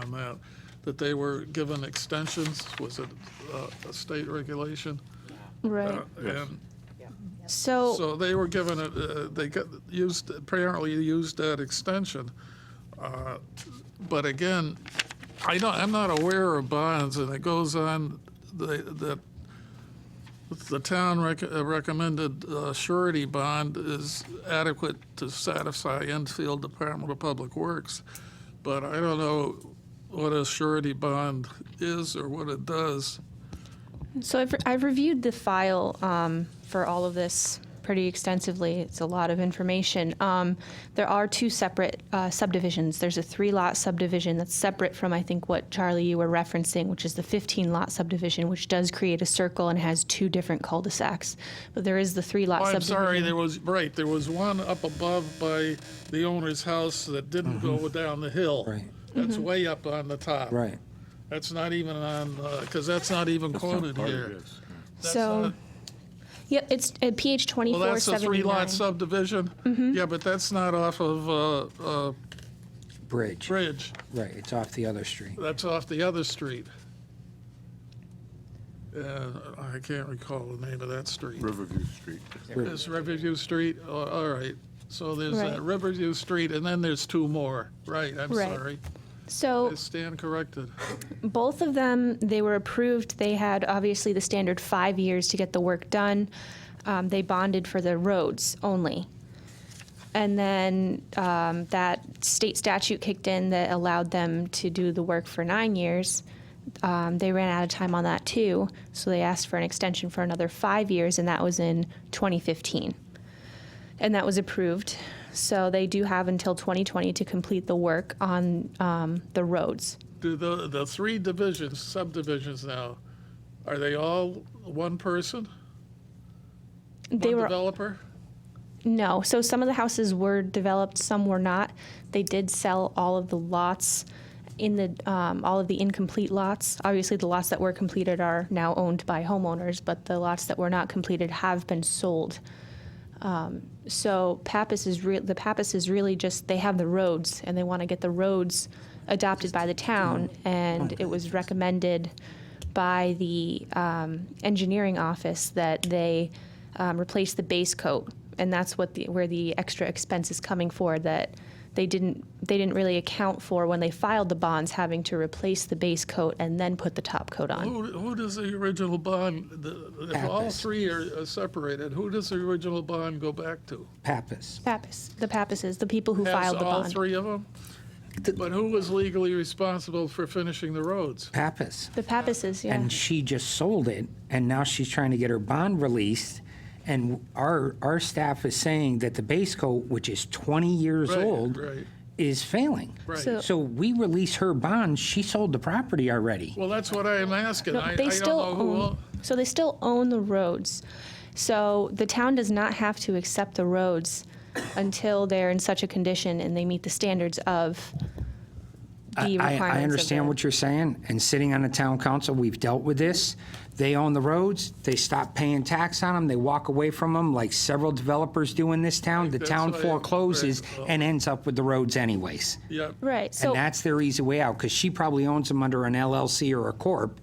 that, that they were given extensions, was it uh, a state regulation? Right. Uh, And So, so they were given, it, uh, they got, used, apparently used that extension. Uh, But again, I don't, I'm not aware of bonds, and it goes on, the- that the town rec- uh, recommended uh, surety bond is adequate to satisfy Enfield Department of Public Works. But I don't know what a surety bond is or what it does. so I've, I've reviewed the file um, for all of this pretty extensively. It's a lot of information. Um, there are two separate uh, subdivisions. There's a three lot subdivision that's separate from, I think, what Charlie you were referencing, which is the 15 lot subdivision, which does create a circle and has two different cul de sacs. But there is the three lot Oh, I'm subdivision. sorry, there was, right, there was one up above by the owner's house that didn't go down the hill. Mm-hmm. Right. That's Mm-hmm. way up on the top. Right. That's not even on, because that's not even quoted here. That's So- not- Yep, it's uh, at PH Well, 2479. that's a three-lot subdivision? Mm-hmm. Yeah, but that's not off of uh, uh, Bridge, Bridge. right, it's off the other street. That's off the other street. And I can't recall the name of that street. Riverview Street. It's Riverview Street, Oh, all right. So there's Right. that Riverview Street, and then there's two more. Right, I'm Right. sorry. So I stand corrected. Both of them, they were approved. They had obviously the standard five years to get the work done. Um, they bonded for the roads only. And then um, that state statute kicked in that allowed them to do the work for nine years. Um, they ran out of time on that too, so they asked for an extension for another five years, and that was in 2015. And that was approved. So they do have until 2020 to complete the work on um, the roads. Do the, the three divisions, subdivisions now, are they all one person? They One were developer? No. So some of the houses were developed, some were not. They did sell all of the lots in the um, all of the incomplete lots. Obviously, the lots that were completed are now owned by homeowners, but the lots that were not completed have been sold. Um, so Pappas is re- the Pappas is really just they have the roads and they want to get the roads adopted by the town, and it was recommended by the um, engineering office that they um, replace the base coat, and that's what the, where the extra expense is coming for that they didn't they didn't really account for when they filed the bonds having to replace the base coat and then put the top coat on. Who, who does the original bond, the- if all Pappas. three are are separated, who does the original bond go back to? Pappas. Pappas, the Pappases, the people who Has filed the all bond. three of them? But who was legally responsible for finishing the roads? Pappas. The Pappases, yeah. And she just sold it, and now she's trying to get her bond released. And our, our staff is saying that the base coat, which is 20 years Right, old, right. is failing. Right. So- So we release her bond, she sold the property already. Well, that's what I am asking. No, I, I they don't still know who, own, all- So they still own the roads. So the town does not have to accept the roads until they're in such a condition and they meet the standards of the I, requirements. I understand what you're saying, and sitting on the town council, we've dealt with this. They own the roads, they stop paying tax on them, they walk away from them, like several developers do in this town. The That's town why- forecloses right, well- and ends up with the roads anyways. yeah, Right. And So that's their easy way out, because she probably owns them under an LLC or a corp,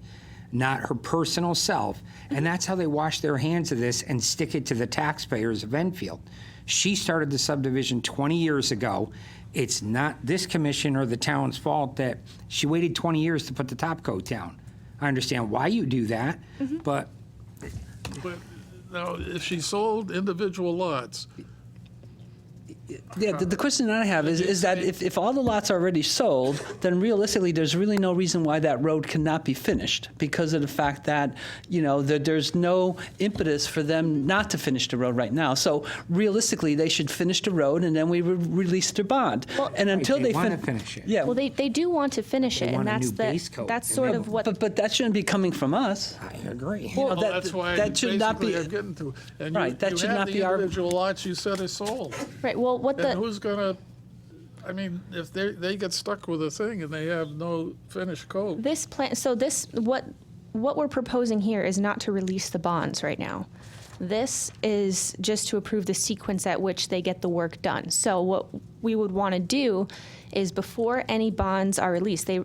not her personal self. And that's how they wash their hands of this and stick it to the taxpayers of Enfield. She started the subdivision 20 years ago. It's not this commission or the town's fault that she waited 20 years to put the top coat down. I understand why you do that, but but now, if she sold individual lots, Yeah, the, the question I have is, is that if, if all the lots are already sold, then realistically, there's really no reason why that road cannot be finished because of the fact that, you know, that there's no impetus for them not to finish the road right now. So realistically, they should finish the road and then we re- release their bond. and until they they, wanna fin- finish it. Yeah, well they, they do want to finish it and want a that's new base the coat. that's sort of what but, but that shouldn't be coming from us. I agree. You know, well, that's why that should not basically be. I'm getting to. And you- Right, that you should have not the be our- Individual lots you said are sold. right well what And the who's gonna, I mean, if they, they get stuck with a thing and they have no finished coat, this plan so this what what we're proposing here is not to release the bonds right now this is just to approve the sequence at which they get the work done so what we would want to do is before any bonds are released they